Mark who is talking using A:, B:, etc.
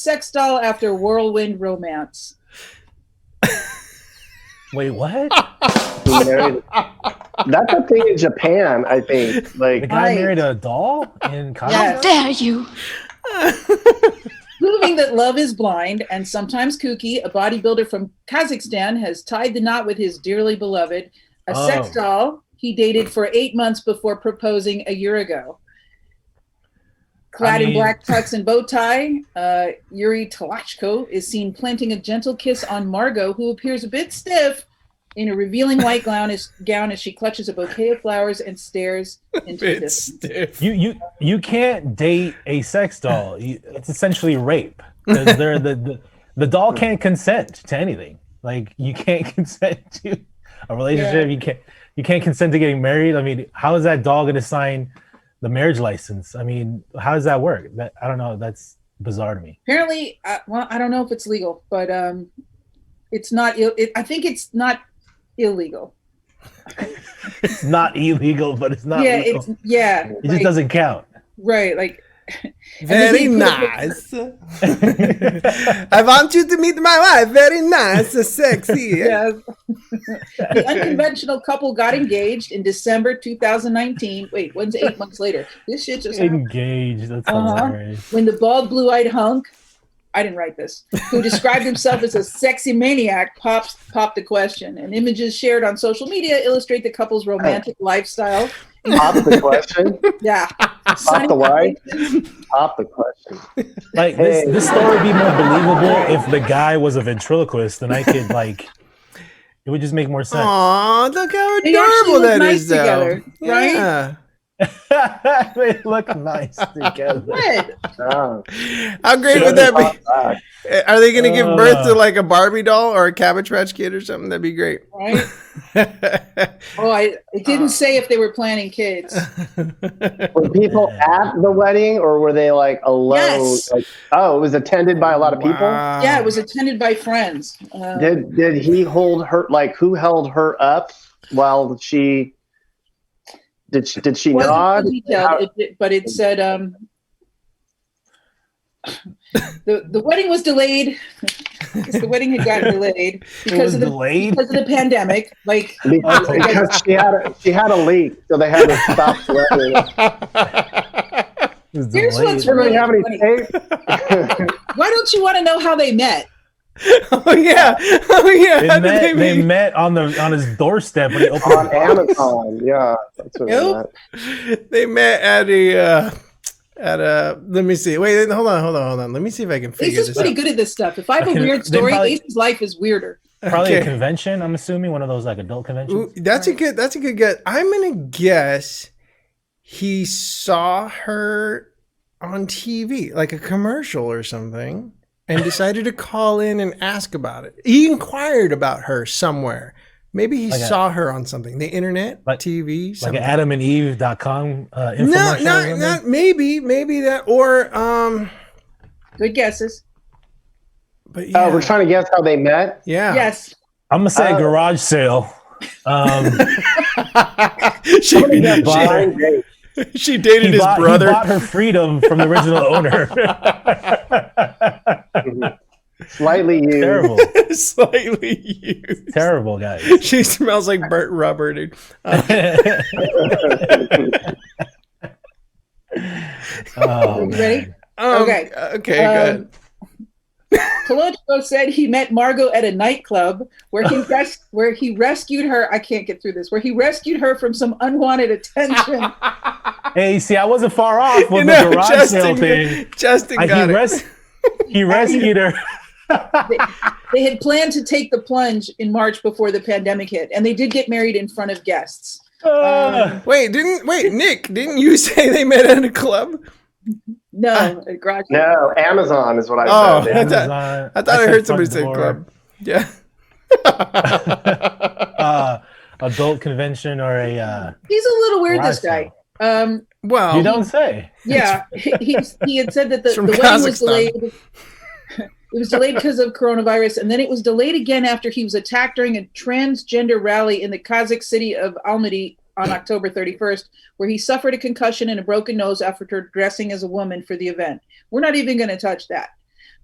A: sex doll after whirlwind romance.
B: Wait, what?
C: He married- That's a thing in Japan, I think.
B: The
C: Like,
B: guy
A: Right.
B: married a doll in college?
A: Yeah.
D: How dare you?
A: Proving that love is blind and sometimes kooky, a bodybuilder from Kazakhstan has tied the knot with his dearly beloved, a
B: Oh.
A: sex doll he dated for eight months before proposing a year ago. Clad
B: I
A: in
B: mean-
A: black tux and bow tie, uh, Yuri Talachko is seen planting a gentle kiss on Margot, who appears a bit stiff in a revealing white gown as, gown as she clutches a bouquet of flowers and stares into the
E: It's
A: distance.
E: stiff.
B: You you you can't date a sex doll. You, it's essentially rape. 'Cause They're the, the the doll can't consent to anything. Like you can't consent to a relationship. You can't you can't consent to getting married. I mean, how is that doll going to sign the marriage license? I mean, how does that work? That I don't know. That's bizarre to me.
A: apparently uh, well i don't know if it's legal but um it's not Ill- it, i think it's not illegal
B: It's not illegal, but it's not.
A: yeah
B: legal.
A: it's yeah
B: it
A: like-
B: just doesn't count.
A: right like
E: Very
A: And then he
E: nice. I want you to meet my wife. Very nice, sexy.
A: yeah the unconventional couple got engaged in december 2019 wait when's eight months later this shit just happened.
B: Engaged. That's
A: Uh-huh.
B: hilarious.
A: when the bald blue-eyed hunk i didn't write this who described himself as a sexy maniac pops popped the question and images shared on social media illustrate the couple's romantic lifestyle
C: pop the question,
A: yeah
C: pop the wine, pop the question.
B: Like this,
C: Hey.
B: this story would be more believable if the guy was a ventriloquist, and I could like, it would just make more sense.
E: Aw, look how
A: They actually
E: adorable
A: look
E: that is,
A: nice
E: though.
A: together, right?
E: Yeah.
B: they look nice together.
A: Good.
C: Oh,
E: How great would that be? Are they going to give birth to
B: Uh.
E: like a Barbie doll or a Cabbage Patch Kid or something? That'd be great.
A: right? Oh, I it
B: Uh,
A: didn't say if they were planning kids.
C: Were people at the wedding or were they like alone?
A: Yes.
C: Like, oh, it was attended by a lot of people.
E: Wow.
A: Yeah, it was attended by friends. Uh,
C: Did did he hold her? Like, who held her up while she? Did she, did she
A: wasn't
C: nod?
A: too detailed,
C: How-
A: it, it- but it said um, the the wedding was delayed. 'cause the wedding had gotten delayed
B: It was
A: because of the
B: delayed.
A: because of the pandemic. Like
C: Because, because she had a, she had a leak, so they had to stop the wedding.
B: It was
A: Here's what's
B: delayed.
A: really-
C: Anybody have any tape?
A: why don't you want to know how they met?
E: oh, yeah. Oh, yeah.
B: They
E: How did
B: met,
E: they
B: they
E: meet?
B: met on the on his doorstep when he opened
C: on
B: the box.
C: Amazon. Yeah, that's what
A: Nope.
C: I meant.
E: they met at a uh, at a let me see wait hold on hold on hold on let me see if i can figure
A: Lisa's
E: this
A: pretty
E: out
A: good at this stuff. If I have a
B: Okay,
A: weird
B: they
A: story,
B: probably-
A: Lisa's life is weirder.
B: Probably a
E: Okay.
B: convention. I'm assuming one of those like adult conventions.
E: Ooh, that's a good that's a good guess i'm gonna guess he saw her on tv like a commercial or something and decided to call in and ask about it he inquired about her somewhere maybe he
B: Like a-
E: saw her on something the internet
B: Like-
E: tv
B: like
E: something.
B: an AdamandEve.com uh,
E: no
B: infomercial. or
E: not,
B: something.
E: not maybe maybe that or um
A: Good guesses.
E: but yeah
C: Oh, we're trying to guess how they met.
E: yeah
A: Yes.
B: I'm gonna say
C: Uh,
B: garage sale. Um,
E: she,
B: that
E: she-
B: bother-
C: Blind date.
E: she dated
B: he,
E: his
B: bought, he
E: brother.
B: bought her freedom from the original owner.
C: Slightly used.
B: Terrible.
E: Slightly used.
B: Terrible guys.
E: She smells like burnt rubber, dude. Uh,
B: oh,
A: You ready?
B: man.
E: um,
A: Okay.
E: Okay,
A: Um,
E: good.
A: Colodro said he met Margot at a nightclub where he res- where he rescued her. I can't get through this. Where he rescued her from some unwanted attention.
B: Hey, see, I wasn't far off with
E: You
B: the
E: know,
B: garage sale
E: Justin,
B: thing.
E: Justin
B: I,
E: got
B: he,
E: it.
B: res- he rescued her.
A: they had planned to take the plunge in March before the pandemic hit, and they did get married in front of guests.
B: Uh,
E: wait, didn't wait, Nick? Didn't you say they met at a club?
A: No, uh, at garage.
C: No, Amazon is what I
E: Oh.
C: said.
E: I thought-
B: Amazon-
E: I thought I,
B: said
E: heard somebody
B: front
E: say
B: door,
E: club. Yeah.
B: Uh, adult convention or a uh,
A: He's a little weird. This
B: garage
A: guy. Um,
E: Wow.
B: sale. You don't say.
A: yeah, he, he, he had said that the,
E: It's
A: the
E: from
A: wedding was
E: Kazakhstan.
A: delayed. It was delayed because of coronavirus, and then it was delayed again after he was attacked during a transgender rally in the Kazakh city of Almaty on October 31st, where he suffered a concussion and a broken nose after dressing as a woman for the event. We're not even going to touch that.